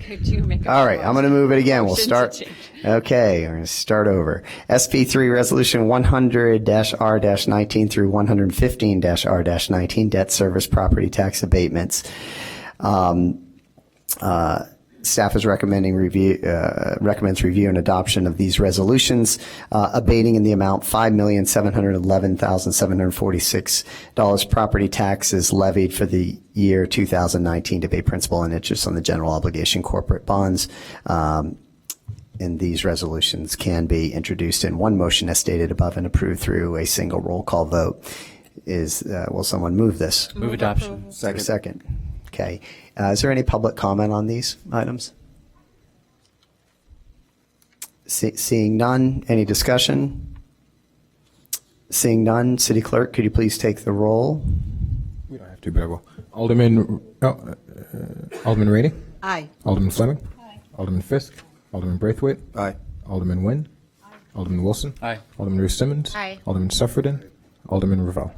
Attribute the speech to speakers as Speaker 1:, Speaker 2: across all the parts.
Speaker 1: could you make? a
Speaker 2: All right, I'm going to move it again. We'll
Speaker 1: Motion to
Speaker 2: start.
Speaker 1: change.
Speaker 2: Okay, we're going to start over. SP3 Resolution 100-R-19 through 115-R-19, Debt Service Property Tax Abatements. Um, uh, Staff is recommending review, uh, recommends review and adoption of these resolutions, uh, abating in the amount $5,711,746 property taxes levied for the year 2019 to pay principal and interest on the general obligation corporate bonds. Um, And these resolutions can be introduced in one motion as stated above and approved through a single roll call vote. Is, uh, will someone move this?
Speaker 3: Move adoption.
Speaker 2: Is there a Second. Okay. Uh, Is there any public comment on these items? See- Seeing none, any discussion? Seeing none, City Clerk, could you please take the roll?
Speaker 4: We don't have to, but I will. Alderman, oh, uh, Alderman Rainey?
Speaker 5: Aye.
Speaker 4: Alderman Fleming? Alderman Fisk? Alderman Braithwaite?
Speaker 6: Aye.
Speaker 4: Alderman Nguyen? Alderman Wilson?
Speaker 3: Aye.
Speaker 4: Alderman Ruth Simmons?
Speaker 5: Aye.
Speaker 4: Alderman Suffredin? Alderman Ravel?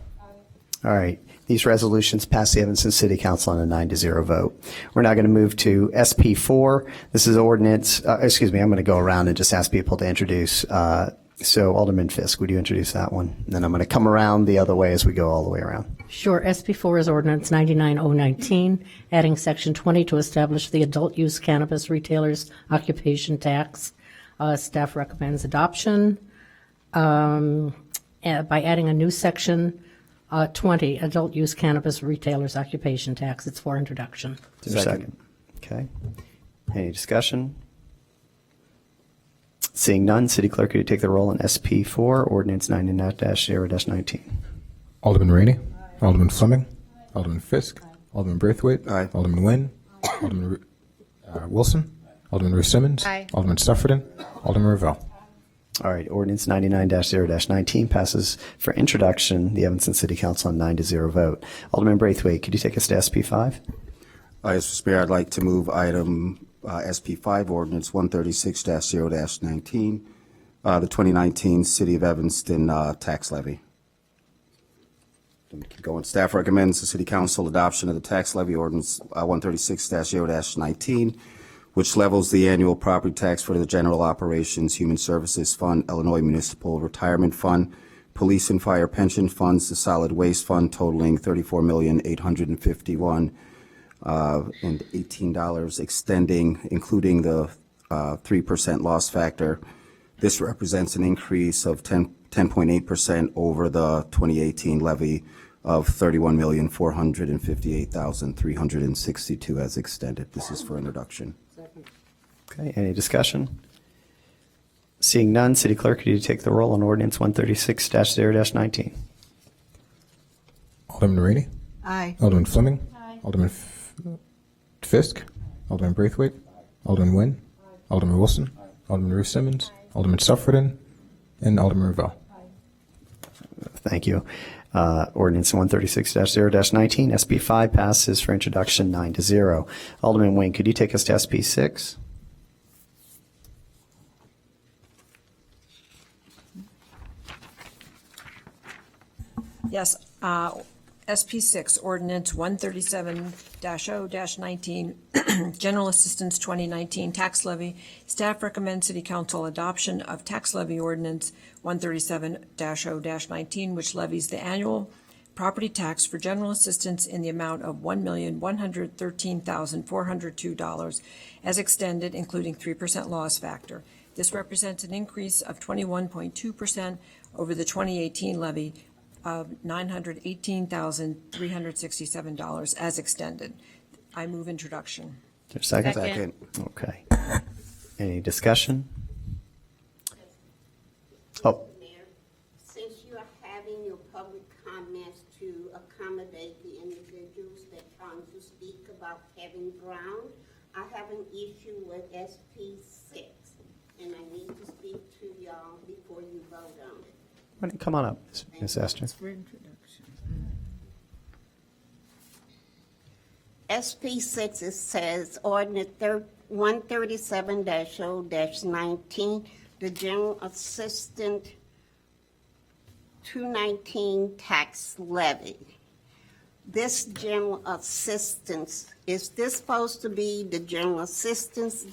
Speaker 2: All right. These resolutions pass the Evanston City Council on a nine to zero vote. We're now going to move to SP four. This is ordinance, uh, excuse me, I'm going to go around and just ask people to introduce. uh, So Alderman Fisk, would you introduce that one? And then I'm going to come around the other way as we go all the way around.
Speaker 7: Sure. SB 4 is Ordinance 99019, adding Section 20 to establish the adult use cannabis retailers occupation tax. Uh, Staff recommends adoption um, eh, by adding a new Section uh, 20, adult use cannabis retailers occupation tax. It's for introduction.
Speaker 2: Is there a second? Okay. Any discussion? Seeing none, City Clerk, could you take the roll on SP four, ordinance ninety-nine zero nineteen?
Speaker 4: Alderman Rainey? Alderman Fleming? Alderman Fisk? Alderman Braithwaite?
Speaker 6: Aye.
Speaker 4: Alderman Nguyen? Alderman Ru- uh, Wilson? Alderman Ruth Simmons?
Speaker 5: Aye.
Speaker 4: Alderman Suffredin? Alderman Ravel?
Speaker 2: All right, ordinance ninety-nine zero nineteen passes for introduction, the Evanston City Council on nine to zero vote. Alderman Braithwaite, could you take us to SP five?
Speaker 6: Uh, Mr. Speaker, I'd like to move item uh, SP5, ordinance 136-0-19, uh, the 2019 City of Evanston uh, tax levy. Then keep Going, staff recommends the City Council adoption of the tax levy ordinance uh, 136-0-19, which levels the annual property tax for the General Operations Human Services Fund, Illinois Municipal Retirement Fund, Police and Fire Pension Funds, the Solid Waste Fund totaling $34,851 uh, and eighteen dollars extending, including the uh, three percent loss factor. This represents an increase of 10 10.8 percent over the twenty eighteen levy of thirty-one million, four hundred and fifty-eight thousand, three hundred and sixty-two as extended. This is for introduction.
Speaker 2: Okay, any discussion? Seeing none, City Clerk, could you take the roll on ordinance one thirty-six zero nineteen?
Speaker 4: Alderman Rainey?
Speaker 5: Aye.
Speaker 4: Alderman Fleming. Alderman F- Fisk. Alderman Braithwaite. Alderman Nguyen. Alderman Wilson. Alderman Ruth Simmons. Alderman Suffredin. And Alderman Ravel.
Speaker 2: Thank you. Uh, Ordinance 136-0-19, SB5 passes for introduction, nine to zero. Alderman Wayne, could you take us to SB6?
Speaker 8: Yes, uh, SP six, ordinance one thirty-seven 0 nineteen, general assistance twenty nineteen tax levy. Staff recommends city council adoption of tax levy ordinance one thirty-seven 0 nineteen, which levies the annual property tax for general assistance in the amount of one million, one hundred thirteen thousand, four hundred two dollars as extended, including three percent loss factor. This represents an increase of twenty-one point two percent over the twenty eighteen levy of $918,367 as extended. I move introduction.
Speaker 2: Is there a Second?
Speaker 6: Second.
Speaker 2: Okay. Any discussion? Oh.
Speaker 9: Mayor, since you are having your public comments to accommodate the individuals that come to speak about Kevin Brown, I have an issue with SP six, and I need to speak to y'all before you vote on it.
Speaker 2: why don't you Come on up, Ms. Ms. Esther.
Speaker 9: SP six, it says ordinance one thirty-seven 0 nineteen, the general assistant two nineteen tax levy. this general assistance, is this supposed to be the general assistance